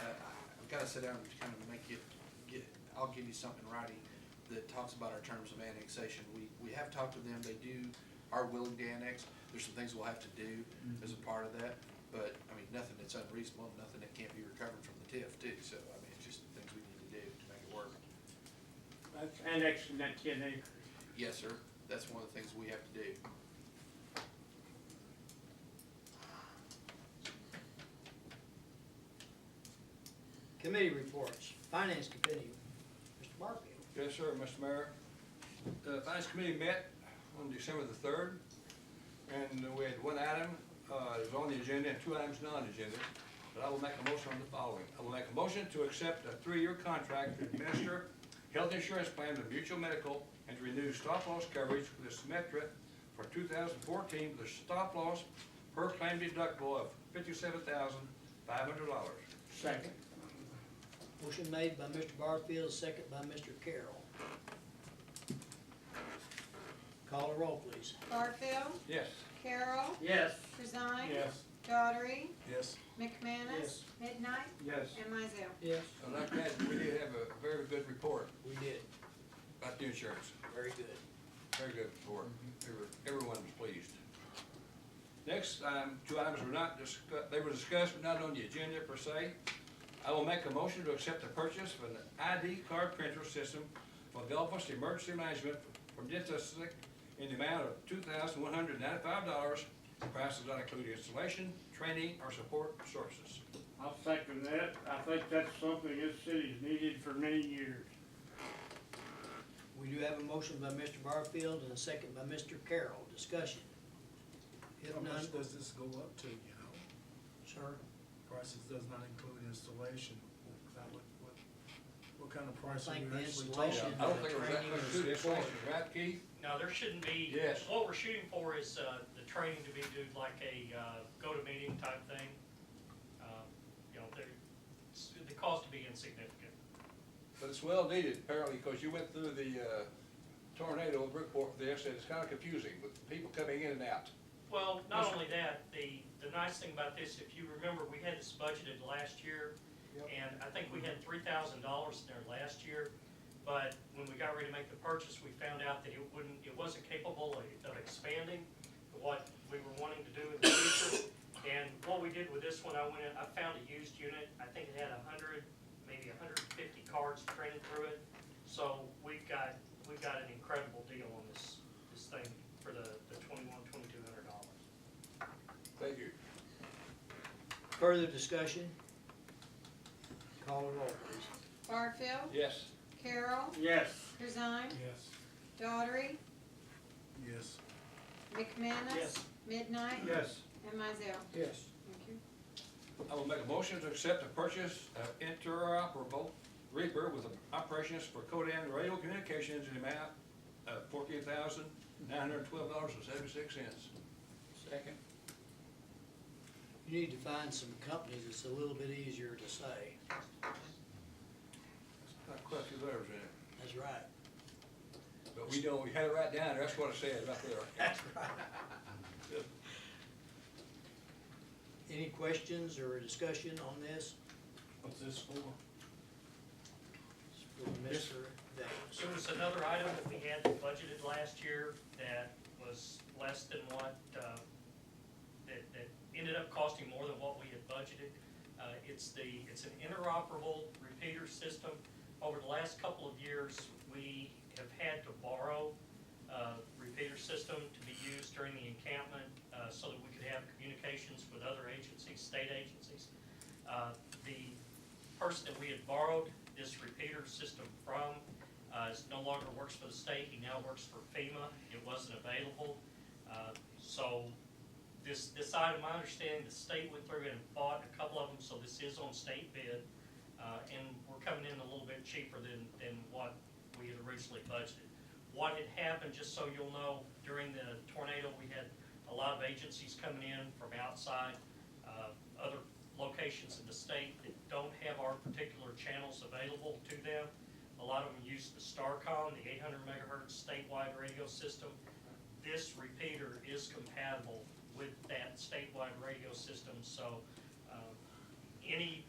Uh, gotta sit down and kind of make it, get, I'll give you something in writing that talks about our terms of annexation. We, we have talked to them, they do, are willing to annex, there's some things we'll have to do as a part of that, but, I mean, nothing that's unreasonable, nothing that can't be recovered from the TIF too, so, I mean, it's just things we need to do to make it work. That's annexing that ten acres. Yes, sir, that's one of the things we have to do. Committee reports, Finance Committee, Mr. Barfield. Yes, sir, Mr. Mayor. The Finance Committee met on December the third, and we had one item, uh, that was on the agenda and two items non-agenda. But I will make a motion on the following. I will make a motion to accept a three-year contract to administer health insurance plan to Mutual Medical and to renew stop-loss coverage with Symetra for two thousand fourteen with a stop-loss per claim deductible of fifty-seven thousand five hundred dollars. Second. Motion made by Mr. Barfield, second by Mr. Carroll. Call a roll, please. Barfield, Yes. Carol, Yes. Corzine. Yes. Daughtry, Yes. McManus. Midnight. Yes. And Mizell. Yes. And like that, we did have a very good report We did, about the insurance. very good. Very good report. Every- Everyone was pleased. Next, um, two items were not discussed, they were discussed but not on the agenda per se. I will make a motion to accept the purchase of an ID card printer system for Belfast Emergency Management from Dentislic in the amount of two thousand one hundred ninety-five dollars. Price does not include installation, training, or support services. I'll second that. I think that's something this city's needed for many years. We do have a motion by Mr. Barfield and a second by Mr. Carroll, discussion. How If none, much does this go up to, you know? sir, Prices does not include installation. That would- What, what kind of price I are think you the actually installation- talking? I don't think it was that much to the installation, right, Keith? No, there shouldn't be. Yes. What we're shooting for is uh, the training to be do like a uh, go-to-meeting type thing. Uh, You know, there, it's- the cost to be insignificant. But it's well needed apparently, because you went through the uh, tornado of Brookport there, so it's kind of confusing with people coming in and out. Well, not Mr. only that, the, the nice thing about this, if you remember, we had this budgeted last year, and I think we had three thousand dollars in there last year, but when we got ready to make the purchase, we found out that it wouldn't, it wasn't capable of- of expanding what we were wanting to do in the future. And what we did with this one, I went in, I found a used unit, I think it had a hundred, maybe hundred and fifty cards printed through it. So we've got, we've got an incredible deal on this, this thing for the, the twenty-one, twenty-two hundred dollars. Thank you. further discussion? Call a roll, please. Barfield, Yes. Carol, Yes. Corzine, Yes. Daughtry, Yes. McManus. Yes. Midnight. Yes. And Mizell. Yes. Thank you. I will make a motion to accept the purchase of interoperable Reaper with operations for Codan Radio Communications in the amount of fourteen thousand nine hundred twelve dollars and seventy-six cents. Second. You need to find some companies that's a little bit easier to say, Not quite a few letters in it, that's right. but we know, we had it right down there, that's what I said right there. Any questions or discussion on this? What's this for? It's For Mr. Davis. There was another item that we had budgeted last year that was less than what, uh, that, that ended up costing more than what we had budgeted. Uh, It's the, it's an interoperable repeater system. Over the last couple of years, we have had to borrow a repeater system to be used during the encampment uh, so that we could have communications with other agencies, state agencies. Uh, The person that we had borrowed this repeater system from uh, is no longer works for the state, he now works for FEMA, it wasn't available. Uh, So this, this item, my understanding, the state went through and bought a couple of them, so this is on state bid. Uh, and we're coming in a little bit cheaper than, than what we had originally budgeted. What had happened, just so you'll know, during the tornado, we had a lot of agencies coming in from outside, uh, other locations in the state that don't have our particular channels available to them. A lot of them use the Starcom, the eight hundred megahertz statewide radio system. This repeater is compatible with that statewide radio system, so, uh, any